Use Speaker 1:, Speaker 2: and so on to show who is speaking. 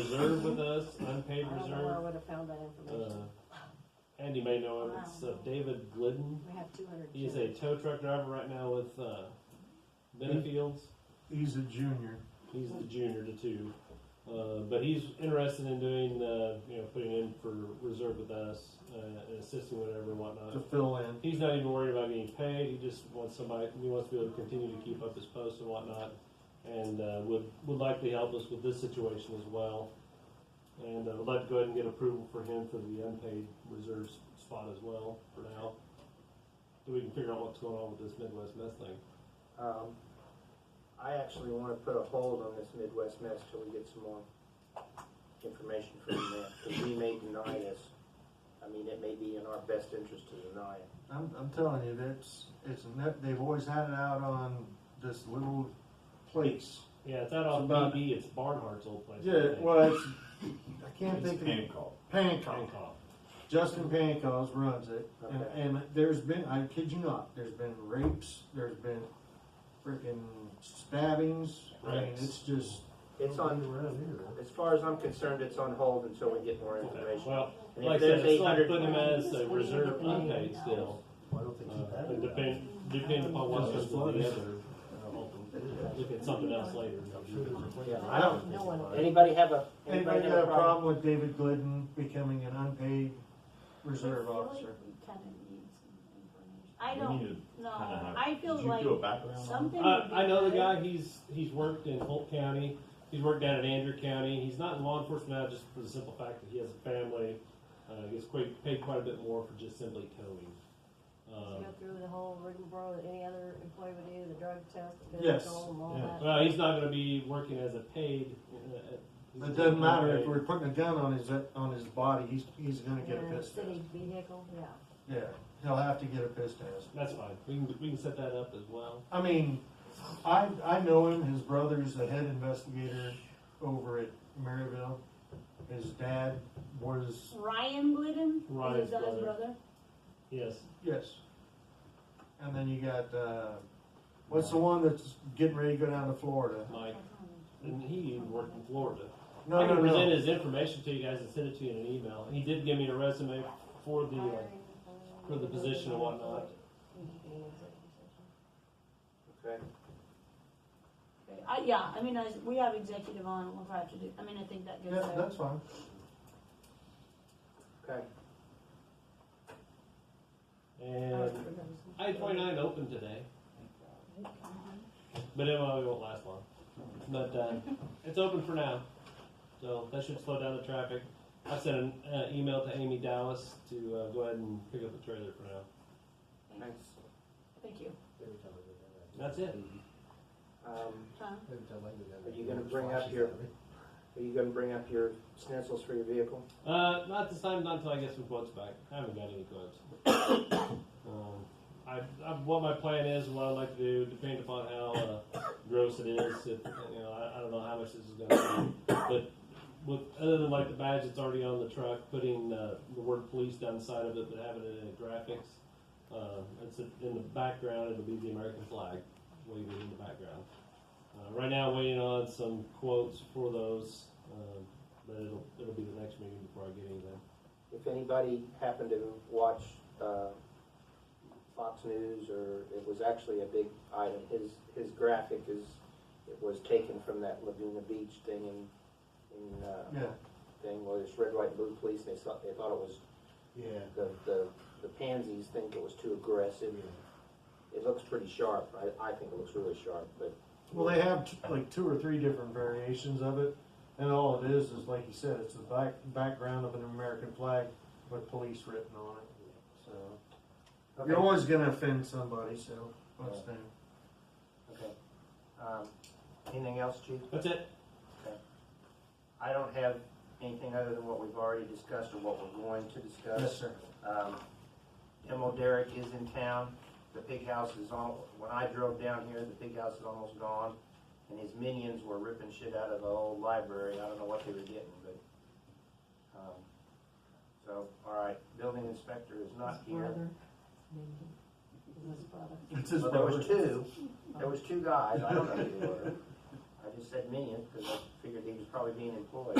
Speaker 1: reserve with us, unpaid
Speaker 2: I don't know where I
Speaker 1: reserve.
Speaker 2: would have found that information.
Speaker 1: Uh, Andy may know him, it's uh, David Glidden.
Speaker 2: We have two hundred.
Speaker 1: He is a tow truck driver right now with, uh, Benefields.
Speaker 3: He's a junior.
Speaker 1: He's the junior to two, uh, but he's interested in doing, uh, you know, putting in for reserve with us uh, and assisting whenever and
Speaker 3: to
Speaker 1: whatnot.
Speaker 3: fill in.
Speaker 1: He's not even worried about getting paid. He just wants somebody. He wants to be able to continue to keep up his post and whatnot, and uh, would would likely help us with this situation as well. And uh, would like to go ahead and get approval for him for the unpaid reserve s- spot as well for now. So we can figure out what's going on with this Midwest mess thing.
Speaker 4: Um, I actually wanna put a hold on this Midwest mess till we get some more information from them, because we may deny this. I mean, it may be in our best interest to deny it.
Speaker 3: I'm, I'm telling you, that's it's ne- they've always had it out on this little place.
Speaker 1: Yeah, it's out on
Speaker 3: It's about-
Speaker 1: BB. It's Barnhart's old place. I
Speaker 3: Yeah,
Speaker 1: think.
Speaker 3: well, it's I can't
Speaker 5: It's
Speaker 3: think of it.
Speaker 5: Hancock.
Speaker 3: Hancock.
Speaker 1: Hancock.
Speaker 3: Justin Pankos runs it,
Speaker 4: Okay.
Speaker 3: and, and there's been I kid you not, there's been rapes, there's been freaking stabbings. I mean,
Speaker 1: Rapes.
Speaker 3: it's just
Speaker 4: It's on, as far as I'm concerned, it's on hold until we get more
Speaker 1: Okay,
Speaker 4: information.
Speaker 1: Well,
Speaker 4: And if
Speaker 1: like I said,
Speaker 4: there's
Speaker 1: it's not
Speaker 4: 800
Speaker 1: putting him as a reserve
Speaker 2: Yeah.
Speaker 1: unpaid still.
Speaker 5: Why don't they keep
Speaker 1: Uh,
Speaker 5: that?
Speaker 1: and depend, depending upon what's going on with the other, look at something else later.
Speaker 4: Yeah,
Speaker 2: I
Speaker 4: I don't,
Speaker 2: don't know what-
Speaker 4: anybody have a,
Speaker 3: anybody
Speaker 4: anybody
Speaker 3: got a
Speaker 4: problem?
Speaker 3: problem with David Glidden becoming an unpaid reserve officer?
Speaker 6: Kind of need some information.
Speaker 2: I
Speaker 5: We
Speaker 2: don't
Speaker 5: need
Speaker 2: know,
Speaker 5: to kinda have-
Speaker 2: I feel
Speaker 5: Did you
Speaker 2: like
Speaker 5: do a background on
Speaker 2: something
Speaker 1: Uh,
Speaker 2: would be
Speaker 1: I know the
Speaker 2: good.
Speaker 1: guy, he's, he's worked in Holt County, he's worked down in Andrew County, he's not in law enforcement now just for the simple fact that he has a family. Uh, gets quite, paid quite a bit more for just simply towing.
Speaker 2: Just
Speaker 1: Um,
Speaker 2: Go through the whole rigmarole that any other employee would do, the drug test, the
Speaker 3: Yes.
Speaker 2: physical, and all
Speaker 5: Yeah.
Speaker 2: that.
Speaker 1: Um, Well, he's not gonna be working as a paid. uh, uh,
Speaker 3: It doesn't matter if
Speaker 1: unpaid.
Speaker 3: we're putting a gun on his on his body. He's he's gonna get a
Speaker 2: And
Speaker 3: piss test.
Speaker 2: City vehicle, yeah.
Speaker 3: Yeah, he'll have to get a piss test.
Speaker 1: That's fine, we can, we can set that up as well.
Speaker 3: I mean, I I know him. His brother's the head investigator over at Maryville. His dad was
Speaker 6: Ryan Glidden?
Speaker 1: Ryan's
Speaker 6: Is that his
Speaker 1: brother,
Speaker 6: brother?
Speaker 1: yes.
Speaker 3: yes. And then you got uh, what's the one that's getting ready to go down to Florida?
Speaker 1: Mike, and he even worked in Florida.
Speaker 3: No,
Speaker 1: I can
Speaker 3: no,
Speaker 1: present
Speaker 3: no.
Speaker 1: his information to you guys and send it to you in an email. And he did give me a resume for the uh, for the position and whatnot.
Speaker 4: Okay,
Speaker 6: Okay. I, yeah, I mean, I, we have executive on, we'll have to do, I mean, I think that goes
Speaker 3: Yeah,
Speaker 6: there.
Speaker 3: that's fine.
Speaker 4: okay.
Speaker 1: uh, And I twenty nine opened today, but it probably won't last long. But uh, it's open for now, so that should slow down the traffic. I sent an uh, email to Amy Dallas to uh, go ahead and pick up the trailer for now.
Speaker 4: Thanks.
Speaker 6: Thank you.
Speaker 1: That's it.
Speaker 4: Um,
Speaker 6: Tom?
Speaker 4: Are you gonna bring up your- are you gonna bring up your stencils for your vehicle?
Speaker 1: Uh, not this time, not until I get some quotes back. I haven't got any quotes. um, I, I, what my plan is, what I'd like to do, depending upon how uh, gross it is, if, you know, I, I don't know how much this is going to be, but with, other than like the badge that's already on the truck, putting uh, the word police down the side of it, but having it in the graphics, uh, it's in the background. It'll be the American flag waving in the background. Uh, right now, waiting on some quotes for those. Um, but it'll, it'll be the next meeting before I get anything.
Speaker 4: If anybody happened to watch uh, Fox News, or it was actually a big item, his, his graphic is, it was taken from that Laguna Beach thing in, in, uh,
Speaker 3: Yeah,
Speaker 4: thing where it's red, white, blue police, and they thought, they thought it was,
Speaker 5: Yeah.
Speaker 4: the, the, the pansies think it was too aggressive. It looks pretty sharp, I, I think it looks really sharp, but.
Speaker 3: well, they have t- like two or three different variations of it, and all it is is like you said, it's the back background of an American flag with police written on it. So.
Speaker 4: Okay.
Speaker 3: You're always gonna offend somebody, so what's
Speaker 4: Yeah.
Speaker 3: new?
Speaker 4: Okay. Um, Anything else, Chief?
Speaker 1: That's it.
Speaker 4: I don't have anything other than what we've already discussed or what we're going to discuss.
Speaker 3: sir.
Speaker 4: Um, Demo Derek is in town. The pig house is on, when I drove down here, the pig house is almost gone. And his minions were ripping shit out of the old library. I don't know what they were getting, but, um, so, all right. Building inspector is not
Speaker 2: His
Speaker 4: here.
Speaker 2: brother, maybe. Is his brother.
Speaker 3: It's his
Speaker 4: Well, there
Speaker 3: brother.
Speaker 4: was two, there was two guys. I don't know who they were. I just said minions because I figured he was probably being employed.